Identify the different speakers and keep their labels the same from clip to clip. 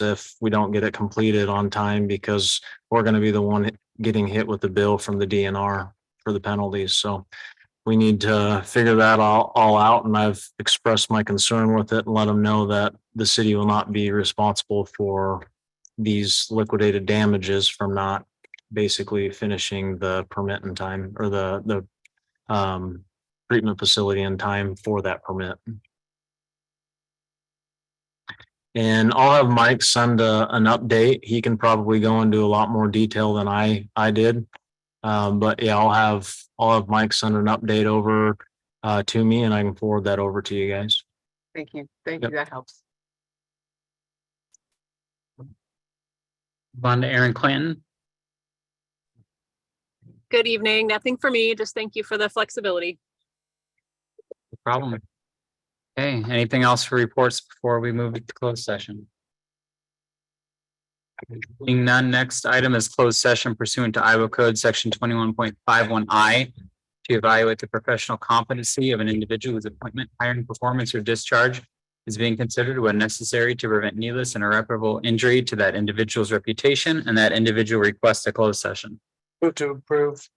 Speaker 1: if we don't get it completed on time because we're gonna be the one getting hit with the bill from the DNR for the penalties, so we need to figure that all, all out, and I've expressed my concern with it and let them know that the city will not be responsible for these liquidated damages from not basically finishing the permit in time or the, the um, treatment facility in time for that permit. And I'll have Mike send a, an update. He can probably go into a lot more detail than I, I did. Um, but yeah, I'll have, I'll have Mike send an update over, uh, to me and I can forward that over to you guys.
Speaker 2: Thank you. Thank
Speaker 1: Yep.
Speaker 2: you. That helps.
Speaker 3: Move on to Aaron Clanton.
Speaker 4: Good evening. Nothing for me. Just thank you for the flexibility.
Speaker 3: No problem. Okay, anything else for reports before we move to closed session? Being none, next item is closed session pursuant to Iowa Code Section twenty-one point five one I to evaluate the professional competency of an individual whose appointment, hiring, performance, or discharge is being considered when necessary to prevent needless and irreparable injury to that individual's reputation, and that individual requests a closed session.
Speaker 5: Move to approve.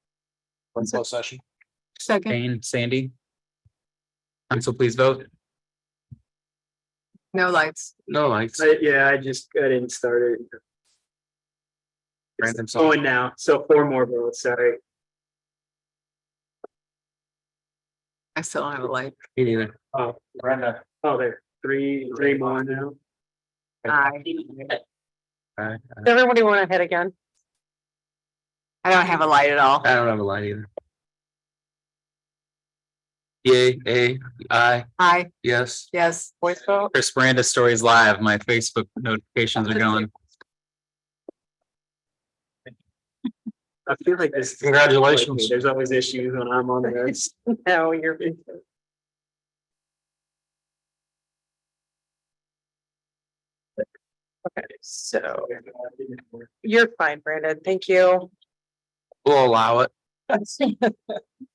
Speaker 5: One closed session.
Speaker 2: Second.
Speaker 3: Jane, Sandy? Council, please vote.
Speaker 2: No lights.
Speaker 5: No lights.
Speaker 6: I- Yeah, I just, I didn't start it.
Speaker 5: Random
Speaker 6: It's
Speaker 5: song.
Speaker 6: going now, so four more votes, sorry.
Speaker 2: I still don't have a light.
Speaker 5: Me neither.
Speaker 6: Oh, Brenda. Oh, there, three, three more now.
Speaker 2: Aye.
Speaker 5: Aye,
Speaker 2: Everybody want to head again? I don't have a light at all.
Speaker 5: I don't have a light either. Yay, A, I,
Speaker 2: Aye,
Speaker 5: yes.
Speaker 2: yes. Voice vote.
Speaker 3: Chris Miranda Stories Live. My Facebook notifications are going.
Speaker 6: I feel like this.
Speaker 1: Congratulations.
Speaker 6: There's always issues when I'm on there.
Speaker 2: No, you're. So you're fine, Brandon. Thank you.
Speaker 5: We'll allow it.